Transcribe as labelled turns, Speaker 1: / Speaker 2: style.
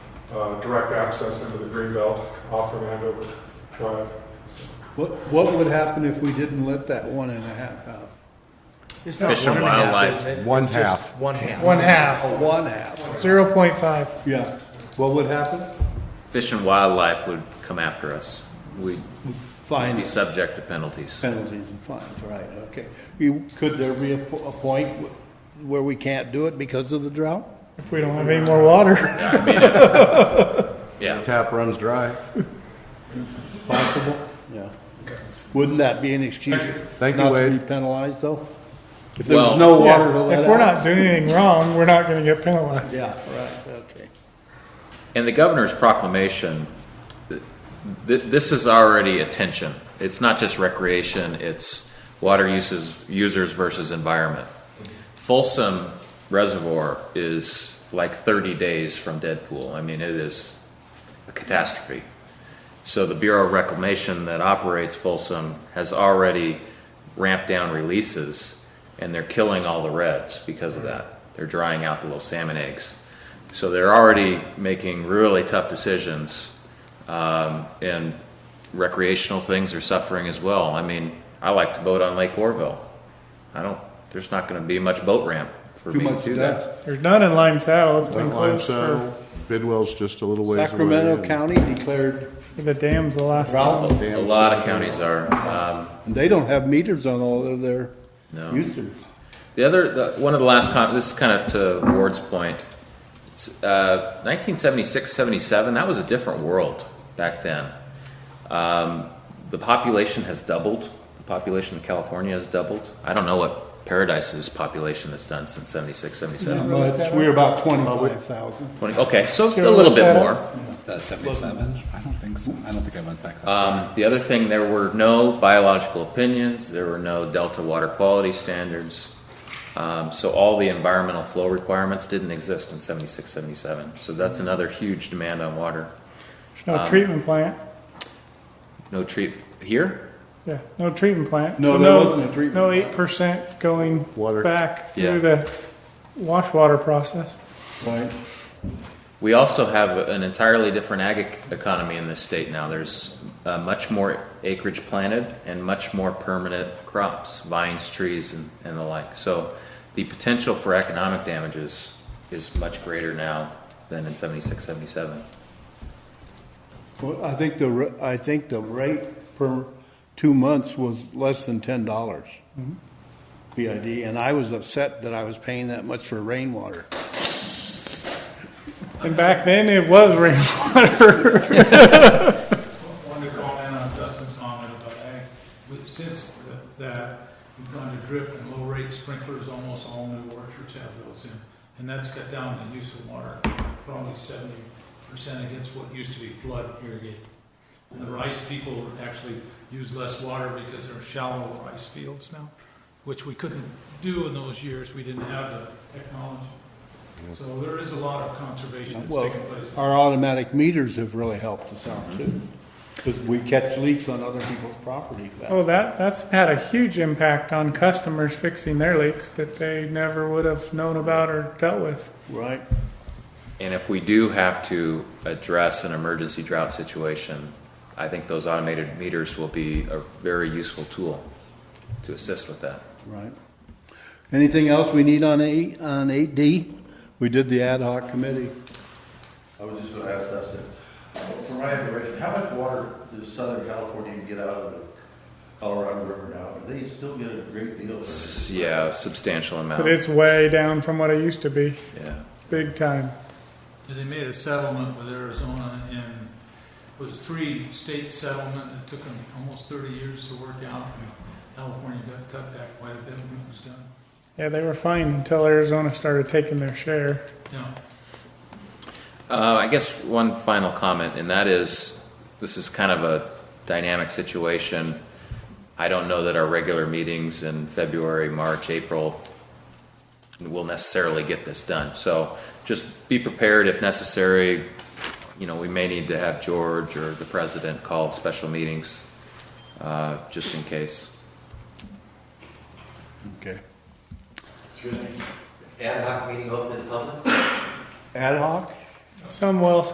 Speaker 1: uh, direct access into the greenbelt off of Andover Drive. So,
Speaker 2: What, what would happen if we didn't let that one and a half out?
Speaker 3: It's not
Speaker 4: Fish and
Speaker 3: one a half,
Speaker 4: Wildlife.
Speaker 3: isn't it?
Speaker 5: One
Speaker 3: It's just
Speaker 5: half.
Speaker 3: One half.
Speaker 6: One half,
Speaker 2: A one half,
Speaker 6: zero point five.
Speaker 2: yeah. What would happen?
Speaker 4: Fish and Wildlife would come after us. We'd be
Speaker 2: Fines,
Speaker 4: subject to penalties.
Speaker 2: penalties and fines, right, okay. You, could there be a, po- a point wh- where we can't do it because of the drought?
Speaker 6: If we don't have any more water,
Speaker 4: Yeah,
Speaker 5: Tap runs dry.
Speaker 2: Possible? Yeah. Wouldn't that be an excuse?
Speaker 5: Thank you,
Speaker 2: Not to
Speaker 5: Wade.
Speaker 2: be penalized, though? If there was
Speaker 4: Well-
Speaker 2: no water to let out?
Speaker 6: if we're not doing anything wrong, we're not gonna get penalized.
Speaker 2: Yeah, right, okay.
Speaker 4: and the governor's proclamation, th- th- this is already attention. It's not just recreation, it's water uses, users versus environment. Folsom Reservoir is like 30 days from Deadpool. I mean, it is a catastrophe. So the Bureau of Reclamation that operates Folsom has already ramped down releases, and they're killing all the reds because of that. They're drying out the little salmon eggs. So they're already making really tough decisions, um, and recreational things are suffering as well. I mean, I like to boat on Lake Orville. I don't. There's not going to be much boat ramp for
Speaker 2: Too
Speaker 4: me
Speaker 2: much
Speaker 4: to do
Speaker 2: dust.
Speaker 4: that.
Speaker 6: There's none in Lime Saddle, it's been
Speaker 5: Lime
Speaker 6: closed
Speaker 5: Saddle,
Speaker 6: for,
Speaker 5: Bidwell's just a little ways away.
Speaker 2: Sacramento
Speaker 5: and
Speaker 2: County declared
Speaker 6: for the dams the last.
Speaker 2: drought,
Speaker 4: A lot of counties are. Um,
Speaker 2: and they don't have meters on all of their
Speaker 4: No.
Speaker 2: users.
Speaker 4: The other, the, one of the last com this is kind of to Ward's point. S- Uh, 1976, 77, that was a different world back then. Um, the population has doubled. The population of California has doubled. I don't know what Paradise's population has done since 76, 77.
Speaker 2: Well, it's- We're about twenty-five thousand.
Speaker 4: 20, okay, so
Speaker 6: Sure,
Speaker 4: a little
Speaker 6: look
Speaker 4: bit
Speaker 6: that up.
Speaker 4: more.
Speaker 7: Uh, 77? I don't think so. I don't think I went back that far.
Speaker 4: Um, the other thing, there were no biological opinions, there were no delta water quality standards. Um, so all the environmental flow requirements didn't exist in 76, 77. So that's another huge demand on water.
Speaker 6: There's no treatment plant,
Speaker 4: No treat here?
Speaker 6: yeah, no treatment plant.
Speaker 2: No,
Speaker 6: So
Speaker 2: there wasn't a treatment
Speaker 6: No
Speaker 2: plant.
Speaker 6: eight percent going
Speaker 5: Water.
Speaker 6: back
Speaker 4: Yeah.
Speaker 6: through the wash water process.
Speaker 2: Right.
Speaker 4: We also have an entirely different ag ec- economy in this state now. There's uh, much more acreage planted and much more permanent crops, vines, trees, and, and the like. So the potential for economic damages is much greater now than in 76, 77.
Speaker 2: Well, I think the, ra- I think the rate per two months was less than ten dollars. BID, and I was upset that I was paying that much for rainwater.
Speaker 6: And back then, it was rainwater.
Speaker 8: Wanted to call in on Dustin's comment about ag, but since th- that, we've gone to drip and low rate sprinklers, almost all new orchards have those in. And that's cut down the use of water, probably seventy percent against what used to be flood irrigated. And the rice people actually use less water because they're shallow rice fields now, which we couldn't do in those years, we didn't have the technology. So there is a lot of conservation that's
Speaker 2: Well,
Speaker 8: taking place.
Speaker 2: our automatic meters have really helped us out too, because we catch leaks on other people's property.
Speaker 6: Oh, that, that's had a huge impact on customers fixing their leaks that they never would have known about or dealt with.
Speaker 2: Right,
Speaker 4: And if we do have to address an emergency drought situation, I think those automated meters will be a very useful tool to assist with that.
Speaker 2: right. Anything else we need on eight, on eight D? We did the ad hoc committee.
Speaker 9: I was just gonna ask Dustin, for my information, how much water does Southern California get out of the Colorado River now? Do they still get a great deal? of it?
Speaker 4: S- Yeah, a substantial amount.
Speaker 6: But it's way down from what it used to be,
Speaker 4: Yeah.
Speaker 6: big time.
Speaker 8: They made a settlement with Arizona and it was three state settlement that took them almost thirty years to work out. and California got cut back quite a bit when it was done.
Speaker 6: Yeah, they were fine until Arizona started taking their share.
Speaker 8: Yeah.
Speaker 4: Uh, I guess one final comment, and that is, this is kind of a dynamic situation. I don't know that our regular meetings in February, March, April will necessarily get this done. So just be prepared if necessary. You know, we may need to have George or the president call special meetings, uh, just in case.
Speaker 2: Okay.
Speaker 9: Ad hoc meeting open to the public?
Speaker 2: Ad hoc?
Speaker 6: Some well,